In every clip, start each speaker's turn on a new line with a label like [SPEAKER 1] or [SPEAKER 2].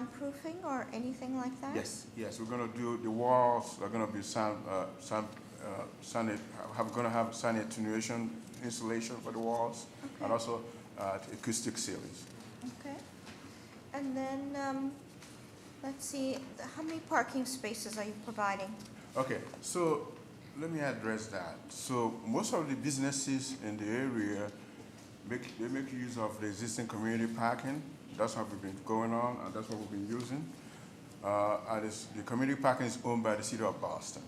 [SPEAKER 1] soundproofing or anything like that?
[SPEAKER 2] Yes, yes, we're gonna do, the walls are gonna be sound, uh, sound, uh, sound, have, gonna have sound attenuation insulation for the walls, and also, uh, acoustic ceilings.
[SPEAKER 1] Okay. And then, um, let's see, th- how many parking spaces are you providing?
[SPEAKER 2] Okay, so let me address that. So most of the businesses in the area make, they make use of the existing community parking. That's what we've been going on, and that's what we've been using. Uh, and it's, the community parking is owned by the city of Boston.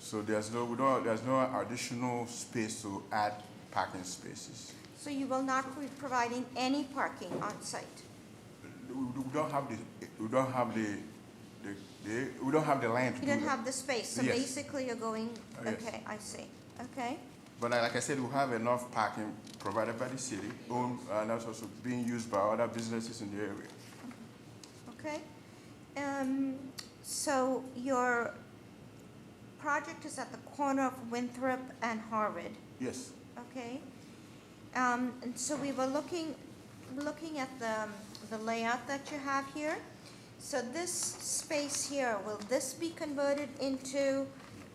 [SPEAKER 2] So there's no, we don't, there's no additional space to add parking spaces.
[SPEAKER 1] So you will not be providing any parking on site?
[SPEAKER 2] We we don't have the, we don't have the, the, the, we don't have the land to
[SPEAKER 1] You
[SPEAKER 2] do
[SPEAKER 1] don't
[SPEAKER 2] that.
[SPEAKER 1] have the space, so
[SPEAKER 2] Mm-hmm. Yes.
[SPEAKER 1] basically you're going,
[SPEAKER 2] Uh, yes.
[SPEAKER 1] okay, I see, okay?
[SPEAKER 2] But like like I said, we have enough parking provided by the city, owned, and that's also being used by other businesses in the area.
[SPEAKER 1] Okay. Um, so your project is at the corner of Winthrop and Harvard,
[SPEAKER 2] Yes,
[SPEAKER 1] okay? Um, and so we were looking, looking at the, the layout that you have here. So this space here, will this be converted into,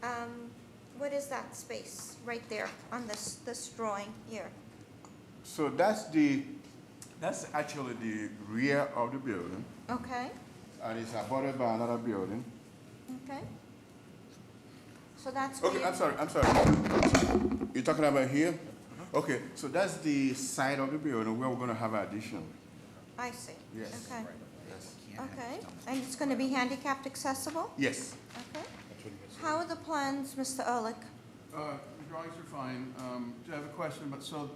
[SPEAKER 1] um, what is that space right there on this, this drawing here?
[SPEAKER 2] so that's the, that's actually the rear of the building,
[SPEAKER 1] Okay?
[SPEAKER 2] and it's abutted by another building.
[SPEAKER 1] Okay? So that's.
[SPEAKER 2] Okay,
[SPEAKER 1] where-
[SPEAKER 2] I'm sorry, I'm sorry. You're talking about here?
[SPEAKER 3] Uh-huh.
[SPEAKER 2] Okay, so that's the side of the building where we're gonna have addition.
[SPEAKER 1] I see.
[SPEAKER 2] Yes.
[SPEAKER 1] Okay,
[SPEAKER 2] Yes.
[SPEAKER 1] okay. And it's going to be handicapped accessible?
[SPEAKER 2] Yes.
[SPEAKER 1] Okay. How are the plans, Mr. Ehrlich?
[SPEAKER 3] Uh, The drawings are fine. Um, Do I have a question? But so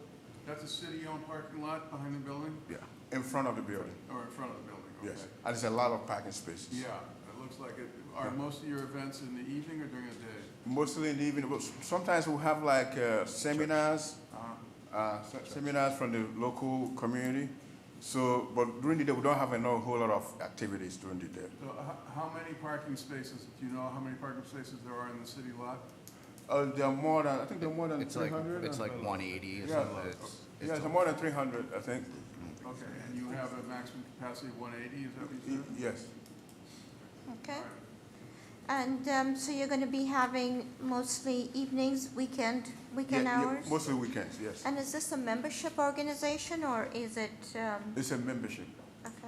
[SPEAKER 3] that's a city-owned parking lot behind the building
[SPEAKER 2] Yeah, in front of the building,
[SPEAKER 3] or in front of the building?
[SPEAKER 2] yes.
[SPEAKER 3] Okay.
[SPEAKER 2] And there's a lot of parking spaces.
[SPEAKER 3] Yeah, it looks like it. Are
[SPEAKER 2] Yeah.
[SPEAKER 3] most of your events in the evening or during the day?
[SPEAKER 2] Mostly in the evening, but sometimes we'll have like uh, seminars,
[SPEAKER 3] Uh,
[SPEAKER 2] uh, se- seminars from the local community. So, but during the day, we don't have a no- whole lot of activities during the day.
[SPEAKER 3] So h- how many parking spaces, do you know how many parking spaces there are in the city lot?
[SPEAKER 2] Uh, there are more than, I think there are more than
[SPEAKER 4] It's like,
[SPEAKER 2] 300.
[SPEAKER 4] it's like one eighty or
[SPEAKER 2] Yeah,
[SPEAKER 4] something, it's,
[SPEAKER 2] yeah,
[SPEAKER 4] it's
[SPEAKER 2] there are more than 300, I think.
[SPEAKER 3] Okay, and you have a maximum capacity of 180, is that what
[SPEAKER 2] Y-
[SPEAKER 3] you said?
[SPEAKER 2] Yes,
[SPEAKER 1] Okay.
[SPEAKER 3] All right.
[SPEAKER 1] And um, so you're going to be having mostly evenings, weekend,
[SPEAKER 2] Yeah,
[SPEAKER 1] weekend
[SPEAKER 2] yeah,
[SPEAKER 1] hours?
[SPEAKER 2] mostly weekends, yes.
[SPEAKER 1] And is this a membership organization or is it, um,
[SPEAKER 2] It's a membership.
[SPEAKER 1] okay?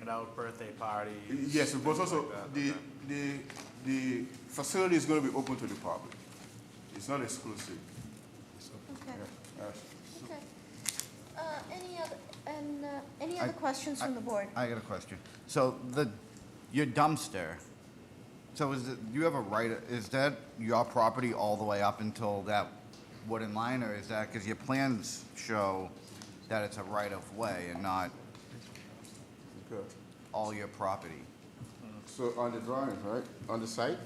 [SPEAKER 5] It out, birthday parties.
[SPEAKER 2] Yes, but
[SPEAKER 5] things
[SPEAKER 2] also
[SPEAKER 5] like that,
[SPEAKER 2] the,
[SPEAKER 5] okay.
[SPEAKER 2] the, the facility is going to be open to the public. It's not exclusive.
[SPEAKER 1] Okay.
[SPEAKER 2] Yeah, yes.
[SPEAKER 1] Okay. Uh, Any other, and, uh, any
[SPEAKER 4] I-
[SPEAKER 1] other questions from the board?
[SPEAKER 4] I got a question. So the, your dumpster, so is it, you have a right, is that your property all the way up until that wooden line, or is that, because your plans show that it's a right-of-way and not
[SPEAKER 2] Good.
[SPEAKER 4] all your property?
[SPEAKER 2] So on the drawings, right, on the site?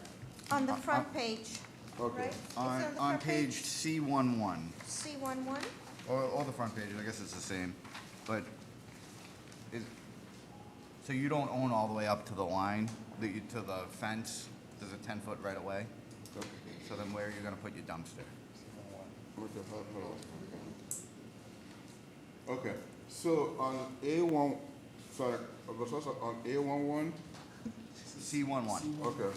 [SPEAKER 1] On the front page,
[SPEAKER 2] Okay.
[SPEAKER 1] right? It's
[SPEAKER 4] On,
[SPEAKER 1] the
[SPEAKER 4] on
[SPEAKER 1] front
[SPEAKER 4] page C one-one,
[SPEAKER 1] C11?
[SPEAKER 4] or all the front pages, I guess it's the same, but is, so you don't own all the way up to the line, that you, to the fence, there's a ten-foot right-of-way? So then where are you gonna put your dumpster?
[SPEAKER 2] What the hell, hold on. Okay, so on A one, sorry, uh, I was also on A one one,
[SPEAKER 4] C one one.
[SPEAKER 2] okay.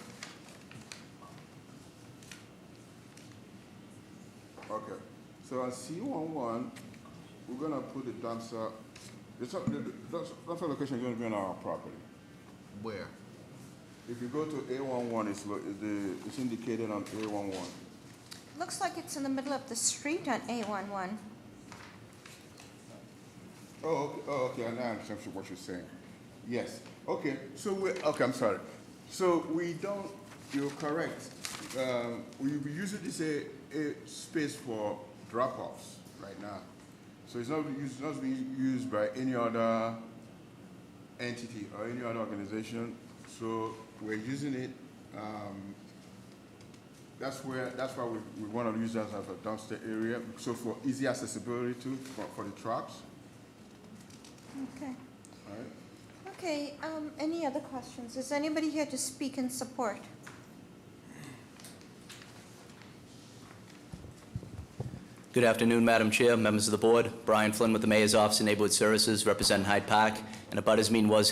[SPEAKER 2] Okay, so on C one one, we're gonna put the dumpster, the, top- the, the, that's, that's the location is gonna be on our property.
[SPEAKER 4] Where?
[SPEAKER 2] If you go to A one one, it's, lo- it's the, it's indicated on A one one.
[SPEAKER 1] Looks like it's in the middle of the street on A11.
[SPEAKER 2] Oh, okay, oh, okay, I now understand what you're saying. Yes, okay, so we, okay, I'm sorry. So we don't, you're correct. Um, we we use it as a, a space for drop-offs right now. So it's not used, not being used by any other entity or any other organization. So we're using it, um, that's where, that's why we, we wanna use that as a dumpster area. So for easy accessibility to, for, for the trucks,
[SPEAKER 1] Okay.
[SPEAKER 2] all right?
[SPEAKER 1] Okay, um, any other questions? Is anybody here to speak in support?
[SPEAKER 6] Good afternoon, Madam Chair, members of the board. Brian Flynn with the Mayor's Office of Neighborhood Services, representing Hyde Park. and abutters meeting was